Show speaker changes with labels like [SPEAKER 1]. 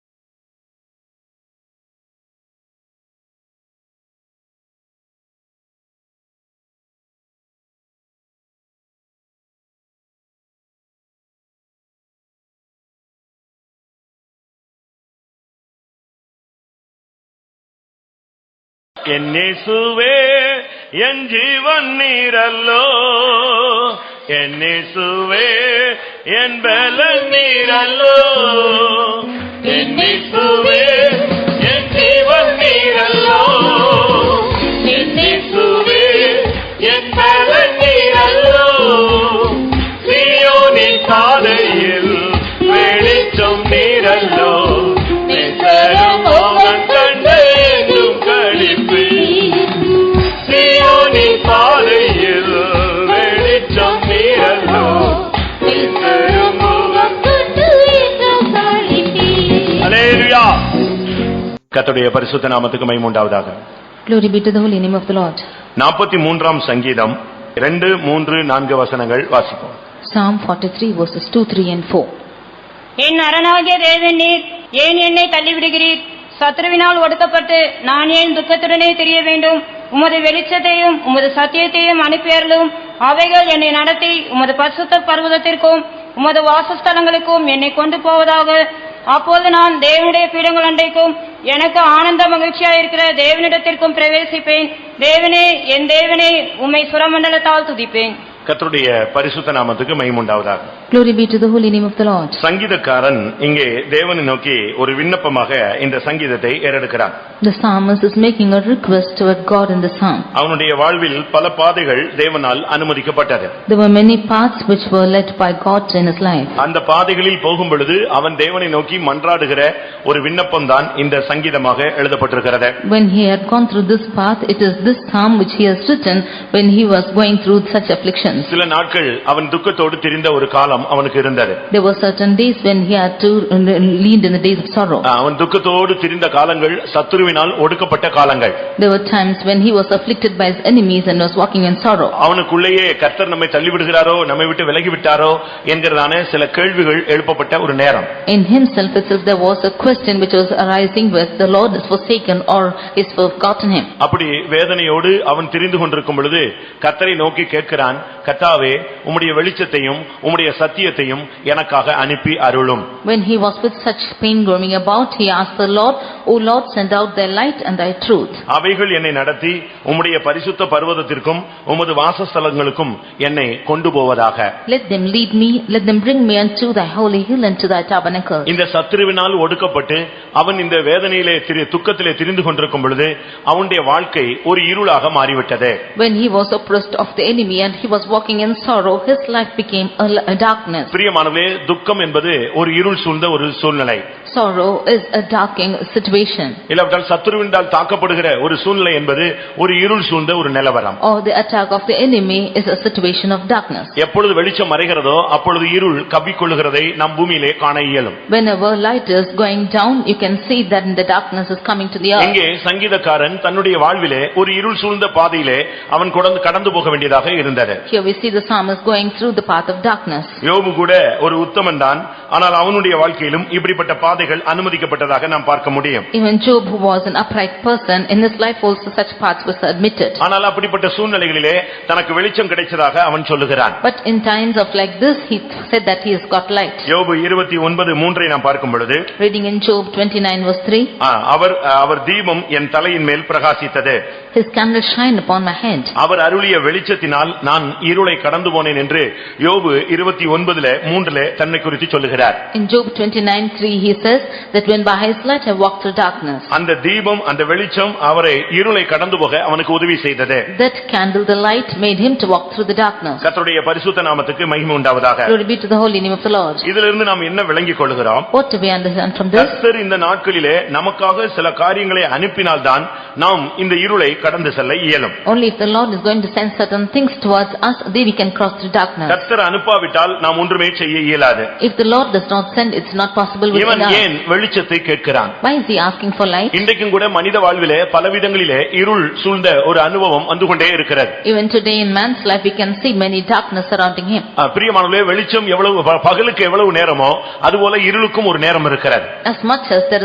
[SPEAKER 1] ಎನ್ನಿಸುವೆ ಎನ್ ಜೀವನ್ ನೀರಲ್ಲೋ ಎನ್ನಿಸುವೆ ಎನ್ ಬೆಲ ನೀರಲ್ಲೋ ಎನ್ನಿಸುವೆ ಎನ್ ಜೀವನ್ ನೀರಲ್ಲೋ ಎನ್ನಿಸುವೆ என் பலனீரல்லோ சீயோனின் பாதையில் வெளிச்சம் நீரல்லோ நிசரம் மோகன் கண்டு எங்கும் களிப்பு சீயோனின் பாதையில் வெளிச்சம் நீரல்லோ நிசரம் மோகன் அலேலுயா கர்த்தருடைய பரிசுத்த நாமத்துக்கு மைமுண்டாவதாக
[SPEAKER 2] Glory be to the holy name of the Lord.
[SPEAKER 1] நாற்பத்தி மூன்றாம் சங்கீதம் இரண்டு மூன்று நான்கு வசனங்கள் வாசிப்போம்
[SPEAKER 2] Psalm 43 verses 2, 3 and 4.
[SPEAKER 3] என் அரணாகிய தேவன் நீர் ஏன் என்னை தள்ளிவிடுகிறீர் சத்ருவினால் ஒடுக்கப்பட்டு நான் ஏன் துக்கத்துடனே தெரிய வேண்டும் உமது வெளிச்சத்தையும் உமது சத்தியத்தையும் அனுப்பியர்களும் அவைகள் என்னை நடத்தி உமது பரிசுத்த பர்வதத்திற்கும் உமது வாசஸ்தலங்களுக்கும் என்னை கொண்டு போவதாக அப்போது நான் தேவனுடைய பீடங்கள் அண்டைக்கும் எனக்கு ஆனந்த மகிழ்ச்சியாயிருக்கிற தேவனிடத்திற்கும் பிரவேசிப்பேன் தேவனே என் தேவனே உம்மை சுரமண்டலத்தால் துதிப்பேன்
[SPEAKER 1] கர்த்தருடைய பரிசுத்த நாமத்துக்கு மகிமுண்டாவதாக
[SPEAKER 2] Glory be to the holy name of the Lord.
[SPEAKER 1] சங்கீதக்காரன் இங்கே தேவனை நோக்கி ஒரு விண்ணப்பமாக இந்த சங்கீதத்தை ஏறெடுக்கிறான்
[SPEAKER 2] The psalmist is making a request toward God in the psalm.
[SPEAKER 1] அவனுடைய வாழ்வில் பல பாதைகள் தேவனால் அனுமதிக்கப்பட்டது
[SPEAKER 2] There were many paths which were led by God in his life.
[SPEAKER 1] அந்த பாதைகளில் போகும் பொழுது அவன் தேவனை நோக்கி மன்றாடுகிற ஒரு விண்ணப்பம்தான் இந்த சங்கீதமாக எழுதப்பட்டிருக்கிறது
[SPEAKER 2] When he had gone through this path, it is this psalm which he has written when he was going through such afflictions.
[SPEAKER 1] சில நாட்கள் அவன் துக்கத்தோடு திரிந்த ஒரு காலம் அவனுக்கு இருந்தது
[SPEAKER 2] There were certain days when he had to lean in the days of sorrow.
[SPEAKER 1] அவன் துக்கத்தோடு திரிந்த காலங்கள் சத்துருவினால் ஒடுக்கப்பட்ட காலங்கள்
[SPEAKER 2] There were times when he was afflicted by his enemies and was walking in sorrow.
[SPEAKER 1] அவனுக்குள்ளேயே கர்த்தர் நம்மை தள்ளிவிடுகிறாரோ நம்மை விட்டு விலகிவிட்டாரோ என்கிறதான சில கேள்விகள் எழுப்பப்பட்ட ஒரு நேரம்
[SPEAKER 2] In himself itself there was a question which was arising with the Lord is forsaken or is forgotten him.
[SPEAKER 1] அப்படி வேதனையோடு அவன் திரிந்து கொண்டிருக்கும் பொழுது கர்த்தரை நோக்கி கேட்கிறான் கர்த்தாவே உம்முடைய வெளிச்சத்தையும் உம்முடைய சத்தியத்தையும் எனக்காக அனுப்பி அருளும்
[SPEAKER 2] When he was with such pain roaming about, he asked the Lord, O Lord, send out thy light and thy truth.
[SPEAKER 1] அவைகள் என்னை நடத்தி உம்முடைய பரிசுத்த பர்வதத்திற்கும் உமது வாசஸ்தலங்களுக்கும் என்னை கொண்டு போவதாக
[SPEAKER 2] Let them lead me, let them bring me unto thy holy hill and to thy tabernacle.
[SPEAKER 1] இந்த சத்துருவினால் ஒடுக்கப்பட்டு அவன் இந்த வேதனையிலே திரு துக்கத்திலே திரிந்து கொண்டிருக்கும் பொழுது அவனுடைய வாழ்க்கை ஒரு இருளாக மாறிவிட்டது
[SPEAKER 2] When he was oppressed of the enemy and he was walking in sorrow, his life became a l- a darkness.
[SPEAKER 1] பிரியமானவே துக்கம் என்பது ஒரு இருள் சூழ்ந்த ஒரு சூழ்நிலை
[SPEAKER 2] Sorrow is a darkening situation.
[SPEAKER 1] இல்லாவிட்டால் சத்துருவினால் தாக்கப்படுகிற ஒரு சூழ்நிலை என்பது ஒரு இருள் சூழ்ந்த ஒரு நிலவரம்
[SPEAKER 2] Or the attack of the enemy is a situation of darkness.
[SPEAKER 1] எப்பொழுது வெளிச்சம் மறைகிறதோ அப்பொழுது இருள் கவ்விக்கொள்ளுகிறதை நம் பூமியிலே காண இயலும்
[SPEAKER 2] Whenever light is going down, you can see that the darkness is coming to the earth.
[SPEAKER 1] இங்கே சங்கீதக்காரன் தன்னுடைய வாழ்விலே ஒரு இருள் சூழ்ந்த பாதையிலே அவன் கடந்து கடந்து போக வேண்டியதாக இருந்தது
[SPEAKER 2] Here we see the psalmist going through the path of darkness.
[SPEAKER 1] யோபு கூட ஒரு உத்தமன் தான் ஆனால் அவனுடைய வாழ்க்கையிலும் இப்படிப்பட்ட பாதைகள் அனுமதிக்கப்பட்டதாக நாம் பார்க்க முடியும்
[SPEAKER 2] Even Job, who was an upright person, in his life also such paths was admitted.
[SPEAKER 1] ஆனால் அப்படிப்பட்ட சூழ்நிலைகளிலே தனக்கு வெளிச்சம் கிடைச்சதாக அவன் சொல்லுகிறான்
[SPEAKER 2] But in times of like this, he said that he has got light.
[SPEAKER 1] யோபு இருபத்தி ஒன்பது மூன்றை நாம் பார்க்கும் பொழுது
[SPEAKER 2] Reading in Job 29 verse 3,
[SPEAKER 1] ஆ, அவர் அவர் தீபம் என் தலையின் மேல் பிரகாசித்தது
[SPEAKER 2] His candle shine upon my head.
[SPEAKER 1] அவர் அருளிய வெளிச்சத்தினால் நான் இருளை கடந்து போனேன் என்று யோபு இருபத்தி ஒன்பதுல மூன்றுல தன்னை குறித்து சொல்லுகிறார்
[SPEAKER 2] In Job 29 3, he says that when by his light I walked through darkness,
[SPEAKER 1] அந்த தீபம் அந்த வெளிச்சம் அவரை இருளை கடந்து போக அவனுக்கு உதவி செய்தது
[SPEAKER 2] that candle, the light, made him to walk through the darkness.
[SPEAKER 1] கர்த்தருடைய பரிசுத்த நாமத்துக்கு மகிமை உண்டாவதாக
[SPEAKER 2] Glory be to the holy name of the Lord.
[SPEAKER 1] இதிலிருந்து நாம் என்ன விளங்கிக் கொள்கிறோம்
[SPEAKER 2] What do we understand from this?
[SPEAKER 1] கர்த்தர் இந்த நாட்களிலே நமக்காக சில காரியங்களை அனுப்பினால்தான் நாம் இந்த இருளை கடந்து செல்ல இயலும்
[SPEAKER 2] Only if the Lord is going to send certain things towards us, then we can cross through darkness.
[SPEAKER 1] கர்த்தர் அனுப்பாவிட்டால் நாம் ஒன்றுமே செய்ய இயலாது
[SPEAKER 2] If the Lord does not send, it's not possible with
[SPEAKER 1] இவன்
[SPEAKER 2] us.
[SPEAKER 1] ஏன் வெளிச்சத்தை கேட்கிறான்
[SPEAKER 2] Why is he asking for light?
[SPEAKER 1] இன்றைக்கும் கூட மனித வாழ்விலே பலவிதங்களிலே இருள் சூழ்ந்த ஒரு அனுபவம் வந்து கொண்டே இருக்கிறது
[SPEAKER 2] Even today in man's life, we can see many darkness surrounding him.
[SPEAKER 1] அஹ் பிரியமானவர்களே வெளிச்சம் எவ்வளவு ப- பகலுக்கு எவ்வளவு நேரமோ அதுபோல இருளுக்கும் ஒரு நேரம் இருக்கிறது
[SPEAKER 2] As much as there